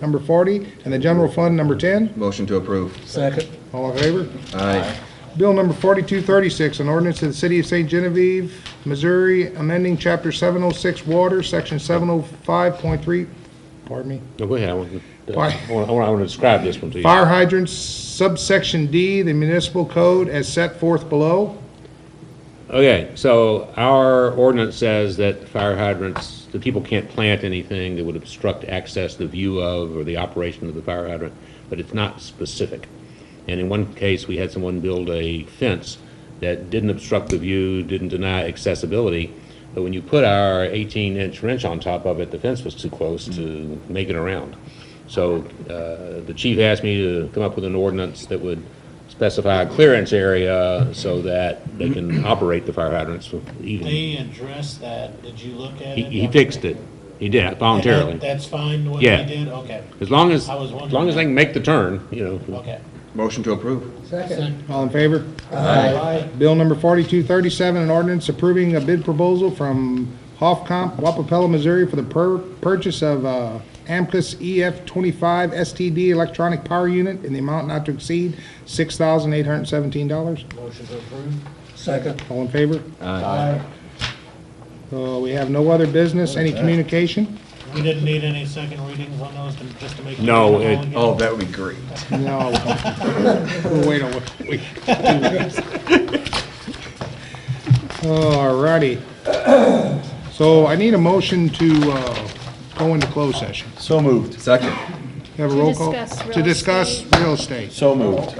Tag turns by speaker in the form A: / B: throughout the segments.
A: number 40, and the general fund, number 10.
B: Motion to approve.
C: Second.
A: All in favor?
B: Aye.
A: Bill number 4236, an ordinance of the City of St. Genevieve, Missouri, amending Chapter 706 Water, Section 705.3, pardon me,
D: No, go ahead, I want to, uh,
A: Why?
D: I want, I want to describe this one to you.
A: fire hydrants subsection D, the municipal code as set forth below.
D: Okay, so our ordinance says that fire hydrants, the people can't plant anything that would obstruct access, the view of, or the operation of the fire hydrant, but it's not specific. And in one case, we had someone build a fence that didn't obstruct the view, didn't deny accessibility, but when you put our 18-inch wrench on top of it, the fence was too close to make it around. So uh, the chief asked me to come up with an ordinance that would specify a clearance area so that they can operate the fire hydrants even.
C: They addressed that, did you look at
D: He
C: it?
D: he fixed it. He did,
C: That-
D: voluntarily.
C: That's fine, what
D: Yeah.
C: they did, okay,
D: As long as,
C: I was
D: as
C: wondering
D: long as
C: that.
D: they can make the turn, you know.
C: okay.
B: Motion to approve.
C: Second.
A: All in favor?
C: Aye.
A: Bill number 4237, an ordinance approving a bid proposal from Hoffcomp, Wapapella, Missouri for the pur- purchase of uh, Amcus EF25 STD electronic power unit in the amount not to exceed $6,817.
C: Motion to approve?
A: All in favor?
C: Aye.
A: Uh, We have no other business, any communication?
C: We didn't need any second readings on those, to- just to make.
D: No,
C: it
D: it-
B: Oh, that would be great.
A: No. We'll Wait a week. All righty. So I need a motion to uh, go into closed session.
E: So moved.
B: Second.
A: Have a
F: To
A: roll call?
F: discuss real
A: To discuss
F: estate.
A: real estate.
E: So moved.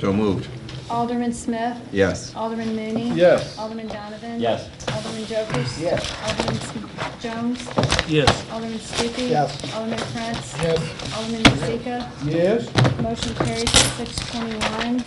B: So moved.
F: Alderman Smith?
B: Yes.
F: Alderman Mooney?
E: Yes.
F: Alderman Donovan?
E: Yes.
F: Alderman Jokers? Yes. Alderman S- Jones?
C: Yes.
F: Alderman Stupi?
E: Yes.
F: Alderman Prince?
C: Yes.
F: Alderman Rozika?
E: Yes.
F: Motion carries at six twenty-one.